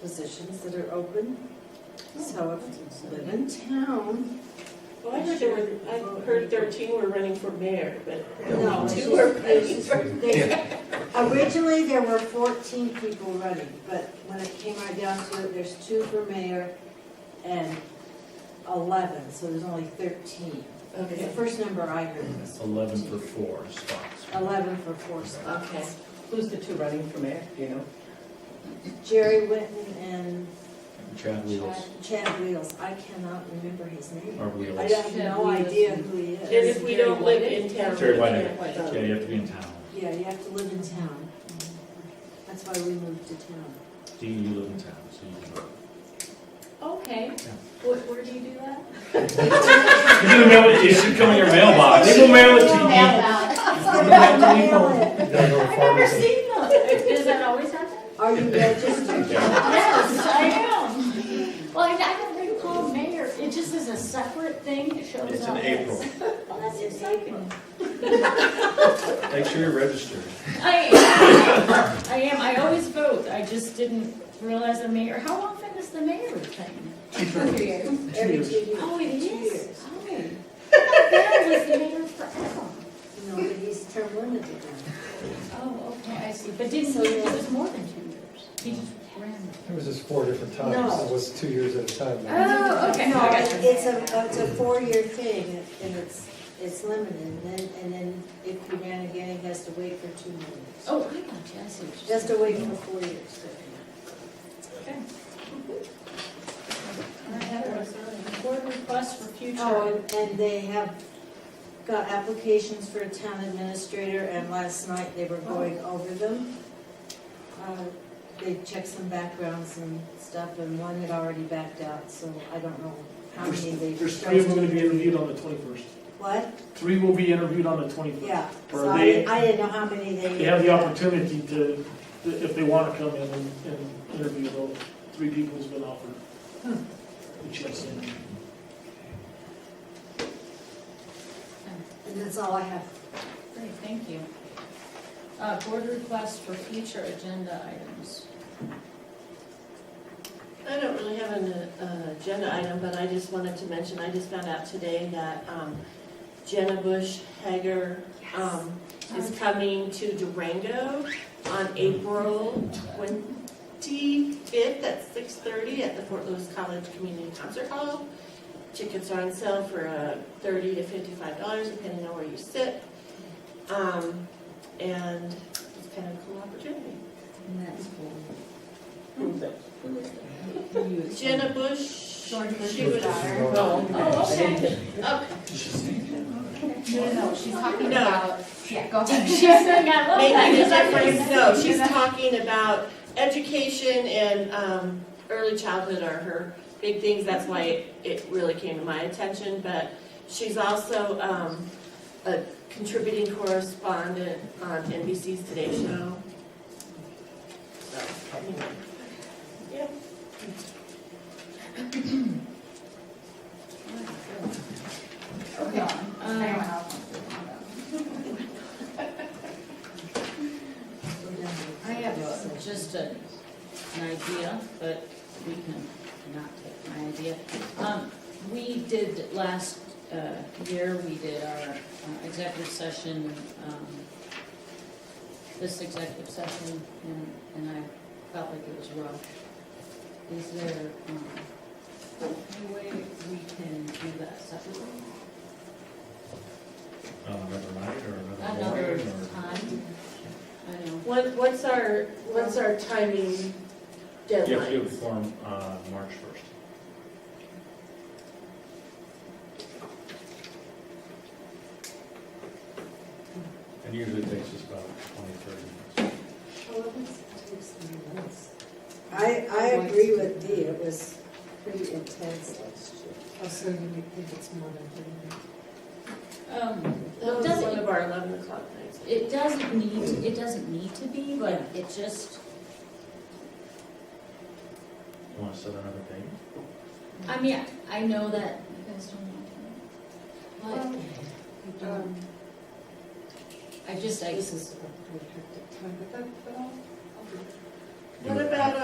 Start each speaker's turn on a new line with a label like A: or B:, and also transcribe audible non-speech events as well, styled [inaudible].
A: positions that are open. So if you live in town,
B: Well, I heard there were, I heard thirteen were running for mayor, but
A: no. it's
B: two
A: just-
B: were
A: it's
B: running
A: just-
B: for.
A: they- Originally, there were fourteen people running, but when it came right down to it, there's two for mayor and eleven, so there's only thirteen. The
B: Okay,
A: first number I heard was
C: Eleven for four spots.
A: eleven for four spots.
B: okay.
D: Who's the two running for mayor, do you know?
A: Jerry Winton and
C: Chad Wheels,
A: Chad Wheels, I cannot remember his name.
C: or
A: I
C: Wheels.
A: have no idea who he
B: And
A: is.
B: if we don't live in town.
C: Terry
B: we
C: Whitehead.
B: can't.
C: Yeah, you have to be in town.
A: Yeah, you have to live in town. That's why we moved to town.
C: Do you live in town, so you can.
E: Okay, where, where do you do that?
C: You're gonna mail it, it should come in your mailbox. They will mail it to
E: Mail
A: Mail it.
E: I've never seen them. Does that always happen?
A: Are you registered?
E: Yes, I am. Well, I I haven't been called mayor, it just is a separate thing, it shows
C: you.
E: up.
C: It's in April.
E: Well, that's exciting.
C: Make sure you're registered.
E: I am, I am, I always vote, I just didn't realize the mayor, how often is the mayor thing? Two years.
A: Every [laughs] two years.
E: Oh, it
A: Two
E: is,
A: years.
E: oh. I thought Barry was the mayor forever.
A: No, but he's term limited now.
E: Oh, okay, I see, but didn't, he- it was more than two years, he just ran.
F: It was just four different
A: No. Ah.
F: times, it was two years at a time.
E: Oh, okay.
A: No, it's a, it's a four-year thing and it's, it's limited. And then, and then if you ran again, he has to wait for two more years.
E: Oh, I got you, I see what you're
A: Just
E: saying.
A: to wait for four years.
E: Okay. I have a board request for
A: Oh,
E: future.
A: and- and they have got applications for a town administrator, and last night they were going over them. Uh, They checked some backgrounds and stuff, and one had already backed out, so I don't know how many they.
G: There's three of them going to be interviewed on the 21st.
A: What?
G: Three will be interviewed on the 21st.
A: Yeah,
G: Or
A: so I,
G: they-
A: I didn't know how many they.
G: They have the opportunity to, if they want to come in and and interview, those three people has been offered the chance to interview.
A: And that's all I have.
E: Great, thank you. Uh, board request for future agenda items.
B: I don't really have an uh, agenda item, but I just wanted to mention, I just found out today that um, Jenna Bush Hager um, is coming to Durango on April 25th at 6:30 at the Fort Lewis College Community Concert Hall. Tickets are on sale for uh, 30 to 55 dollars, depending on where you sit. Um, And it's kind of a cool opportunity.
D: And that's for.
B: Jenna Bush, she
E: Jordan Bush's
B: was.
E: daughter.
B: Oh,
E: Oh, okay.
B: okay.
E: No, no, she's talking
B: No.
E: yeah, go ahead. [laughs] She's saying, I love that.
B: Maybe because I phrased, no, she's talking about education and um, early childhood are her big things. That's why it- it really came to my attention. But she's also um, a contributing correspondent on NBC's Today Show. So, anyway. Yeah.
E: Okay. um, I have just a, an idea, but we can not take my idea. Um, we did last, uh, year, we did our uh, executive session, um, this executive session, and, and I felt like it was rough. Is there, um, any way we can do that separately?
C: Uh, Another night or another
E: Another
C: morning or?
E: time? I know.
B: What- What's our, what's our timing
C: You have to do it
B: deadline?
C: before, uh, March first.
B: Hmm.
C: It usually takes us about twenty, thirty minutes.
A: I, I agree with Dee, it was pretty intense last year. Also, you think it's more than
E: Um,
B: That was
E: Doesn't-
B: one of our 11 o'clock nights.
E: It doesn't need, to- it doesn't need to be, but it just,
C: You wanna set another date?
E: I mean, I know that. You guys don't want to.
A: Um,
E: But I just, I.
A: This is a pretty hectic time, but that, but I'll, I'll do it.
B: What about